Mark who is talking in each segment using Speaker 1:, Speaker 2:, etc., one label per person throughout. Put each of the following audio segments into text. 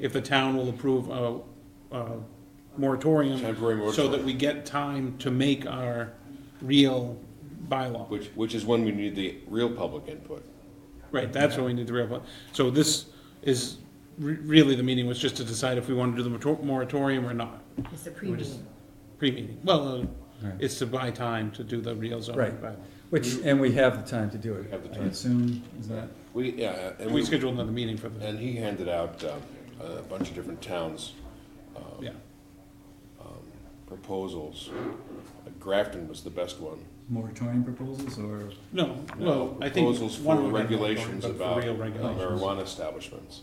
Speaker 1: if the town will approve a, a moratorium.
Speaker 2: Temporary
Speaker 1: So
Speaker 2: moratorium.
Speaker 1: that we get time to make our real bylaw.
Speaker 2: Which, which is when we need the real public input.
Speaker 1: Right, that's what we need to real, so this is, re- really, the meeting was just to decide if we want to do the morator- moratorium or not,
Speaker 3: It's a pre-meeting.
Speaker 1: pre-meeting. Well, uh,
Speaker 4: Right.
Speaker 1: it's to buy time to do the real zoning
Speaker 4: Right.
Speaker 1: bylaw.
Speaker 4: Which, and we have the time to do it.
Speaker 2: Have the
Speaker 4: I
Speaker 2: time.
Speaker 4: assume, is that?
Speaker 2: We, yeah, and
Speaker 1: We
Speaker 2: we,
Speaker 1: scheduled another meeting for the,
Speaker 2: and he handed out um, a bunch of different towns'
Speaker 1: yeah,
Speaker 2: proposals. Uh, Grafton was the best one.
Speaker 4: Moratorium proposals or?
Speaker 1: no, well, I think.
Speaker 2: Proposals
Speaker 1: one
Speaker 2: for
Speaker 1: of them had
Speaker 2: regulations
Speaker 1: moratorium, but
Speaker 2: about uh,
Speaker 1: for Real regulations.
Speaker 2: marijuana establishments.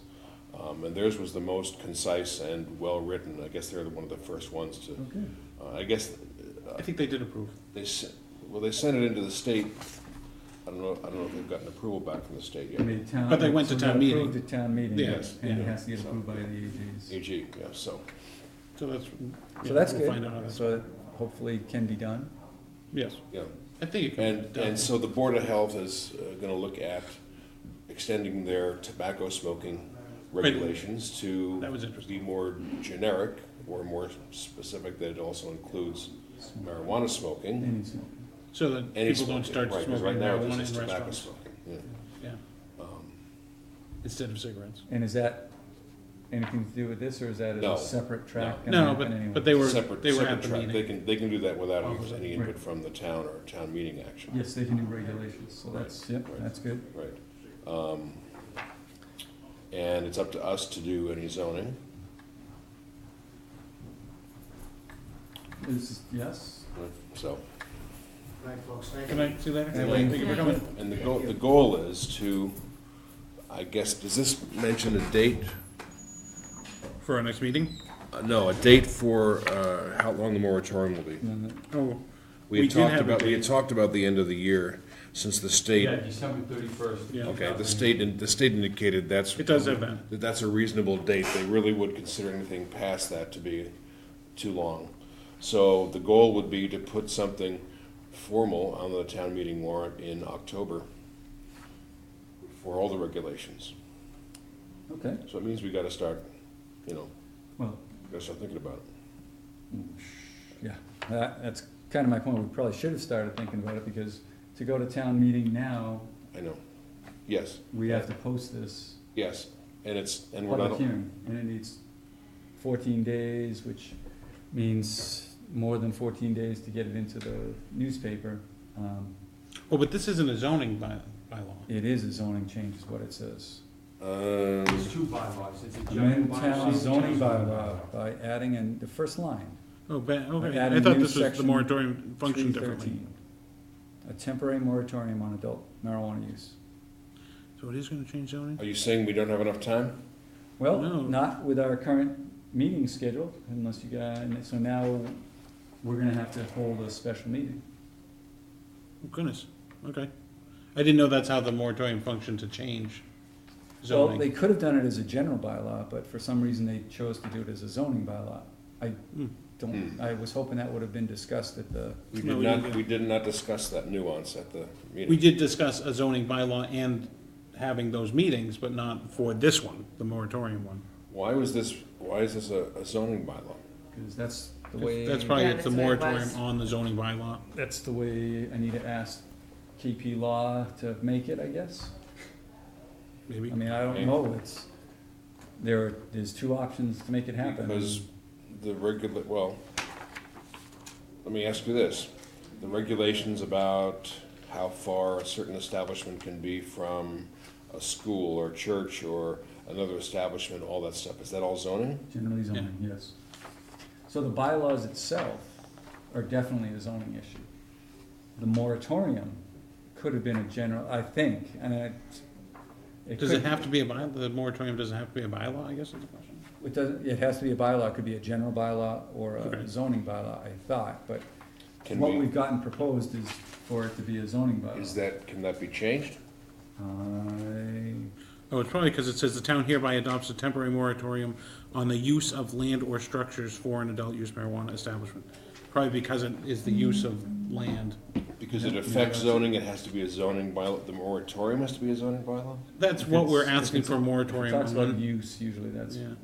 Speaker 2: Um, And theirs was the most concise and well-written. I guess they're one of the first ones to,
Speaker 4: Okay.
Speaker 2: uh, I guess, uh,
Speaker 1: I think they did approve.
Speaker 2: they, s- well, they sent it into the state. I don't know, I don't know if they've gotten approval back from the state
Speaker 4: I
Speaker 2: yet.
Speaker 4: mean, town.
Speaker 1: But they went to
Speaker 4: so
Speaker 1: town
Speaker 4: we
Speaker 1: meeting.
Speaker 4: Approved at town meeting.
Speaker 1: Yes,
Speaker 4: And it
Speaker 1: yeah.
Speaker 4: has to get approved by the AGs.
Speaker 2: AG, yeah, so.
Speaker 1: So that's, yeah,
Speaker 4: So that's
Speaker 1: we'll find out. how
Speaker 4: good.
Speaker 1: that's-
Speaker 4: So it hopefully can be done.
Speaker 1: Yes,
Speaker 2: Yeah,
Speaker 1: I think it can be
Speaker 2: and,
Speaker 1: done.
Speaker 2: and so the Board of Health is going to look at extending their tobacco smoking regulations to
Speaker 1: That was interesting.
Speaker 2: be more generic or more specific, that it also includes marijuana smoking.
Speaker 4: Any smoke.
Speaker 1: So that
Speaker 2: any
Speaker 1: people don't
Speaker 2: smoking,
Speaker 1: start
Speaker 2: right, 'cause
Speaker 1: smoking
Speaker 2: right now this
Speaker 1: marijuana
Speaker 2: is
Speaker 1: in
Speaker 2: tobacco Um,
Speaker 1: restaurants.
Speaker 2: smoking, yeah.
Speaker 1: Yeah. Instead of cigarettes.
Speaker 4: And is that anything to do with this or is that
Speaker 2: No.
Speaker 4: a separate track? gonna
Speaker 1: No,
Speaker 4: happen anyway?
Speaker 1: but, but they were,
Speaker 2: Separate-
Speaker 1: they were
Speaker 2: separate
Speaker 1: at the
Speaker 2: track. They
Speaker 1: meeting.
Speaker 2: can, they can do that without
Speaker 1: Oh, was it?
Speaker 2: any
Speaker 4: Right.
Speaker 2: input from the town or town meeting action.
Speaker 4: Yes, they can do regulations, so that's, yep,
Speaker 2: Right.
Speaker 4: that's good.
Speaker 2: Right. Um, And it's up to us to do any zoning.
Speaker 4: This is, yes?
Speaker 2: So,
Speaker 5: Right, folks, thank you.
Speaker 1: Can I see that?
Speaker 4: Hey,
Speaker 1: Thank you for coming.
Speaker 2: and the goal, the goal is to, I guess, does this mention a date?
Speaker 1: For our next meeting?
Speaker 2: Uh, No, a date for uh, how long the moratorium will be.
Speaker 4: And then
Speaker 1: Oh, We
Speaker 2: We had
Speaker 1: did
Speaker 2: talked
Speaker 1: have a
Speaker 2: about, we had
Speaker 1: date.
Speaker 2: talked about the end of the year, since the state,
Speaker 6: Yeah, December thirty-first.
Speaker 1: Yeah.
Speaker 2: okay, the state, in- the state indicated that's.
Speaker 1: it does have that.
Speaker 2: that that's a reasonable date. They really would consider anything past that to be too long. So the goal would be to put something formal on the town meeting warrant in October for all the regulations.
Speaker 4: the- Okay,
Speaker 2: So it means we gotta start, you know,
Speaker 4: well,
Speaker 2: gotta start thinking about it.
Speaker 4: yeah, that, that's kind of my point. We probably should have started thinking about it because to go to town meeting now,
Speaker 2: I know. Yes,
Speaker 4: we have to post this
Speaker 2: yes. And it's, and we're
Speaker 4: public
Speaker 2: not,
Speaker 4: hearing, and it needs fourteen days, which means more than fourteen days to get it into the newspaper. Um,
Speaker 1: Well, Oh, but this isn't a zoning by, bylaw.
Speaker 4: It is a zoning change, is what it says.
Speaker 2: um,
Speaker 6: It's two bylaws, it's a general
Speaker 4: Amend
Speaker 6: bylaw.
Speaker 4: town
Speaker 6: and a
Speaker 4: zoning
Speaker 6: general
Speaker 4: bylaw by adding in the first line,
Speaker 1: Oh, ba- okay,
Speaker 4: Add
Speaker 1: I
Speaker 4: a
Speaker 1: thought
Speaker 4: new
Speaker 1: this was the
Speaker 4: section,
Speaker 1: moratorium
Speaker 4: three
Speaker 1: functioned differently.
Speaker 4: thirteen. A temporary moratorium on adult marijuana use.
Speaker 1: So it is gonna change zoning?
Speaker 2: are you saying we don't have enough time?
Speaker 4: Well,
Speaker 1: No.
Speaker 4: not with our current meeting scheduled, unless you got, and so now we're gonna have to hold a special meeting.
Speaker 1: Oh, Goodness, okay. I didn't know that's how the moratorium functioned to change
Speaker 4: Well, they
Speaker 1: zoning.
Speaker 4: could have done it as a general bylaw, but for some reason they chose to do it as a zoning bylaw. I
Speaker 1: Hmm.
Speaker 4: don't, I was hoping that would have been discussed at the,
Speaker 2: We
Speaker 1: No,
Speaker 2: did
Speaker 1: we
Speaker 2: not,
Speaker 1: didn't.
Speaker 2: we did not discuss that nuance at the
Speaker 1: We
Speaker 2: meeting.
Speaker 1: did discuss a zoning bylaw and having those meetings, but not for this one, the moratorium one.
Speaker 2: Why was this, why is this a a zoning bylaw?
Speaker 4: because that's the way.
Speaker 1: That's probably,
Speaker 3: Yeah,
Speaker 1: it's the
Speaker 3: that's what it
Speaker 1: moratorium
Speaker 3: was.
Speaker 1: on the zoning bylaw.
Speaker 4: That's the way I need to ask KP Law to make it, I guess.
Speaker 1: Maybe.
Speaker 4: I mean, I don't know, it's, there, are- there's two options to make it happen.
Speaker 2: Because the regula, well, let me ask you this. The regulations about how far a certain establishment can be from a school or church or another establishment, all that stuff, is that all zoning?
Speaker 4: Generally zoning, yes. So the bylaws itself are definitely a zoning issue. The moratorium could have been a general, I think, and I.
Speaker 1: Does it
Speaker 4: could-
Speaker 1: have to be a by, the moratorium doesn't have to be a bylaw, I guess is the question.
Speaker 4: It doesn't, it has to be a bylaw, it could be a general bylaw or
Speaker 1: Okay.
Speaker 4: a zoning bylaw, I thought, but
Speaker 2: Can
Speaker 4: what
Speaker 2: we,
Speaker 4: we've gotten proposed is for it to be a zoning bylaw.
Speaker 2: is that, can that be changed?
Speaker 4: I,
Speaker 1: Oh, it's probably because it says the town hereby adopts a temporary moratorium on the use of land or structures for an adult use marijuana establishment. Probably because it is the use of land.
Speaker 2: Because it
Speaker 4: Yeah,
Speaker 2: affects
Speaker 4: yeah.
Speaker 2: zoning, it has to be a zoning bylaw, the moratorium has to be a zoning bylaw?
Speaker 1: That's what we're
Speaker 4: If it's- if
Speaker 1: asking
Speaker 4: it's-
Speaker 1: for a
Speaker 4: it
Speaker 1: moratorium
Speaker 4: talks about
Speaker 1: on.
Speaker 4: use, usually that's
Speaker 1: Yeah.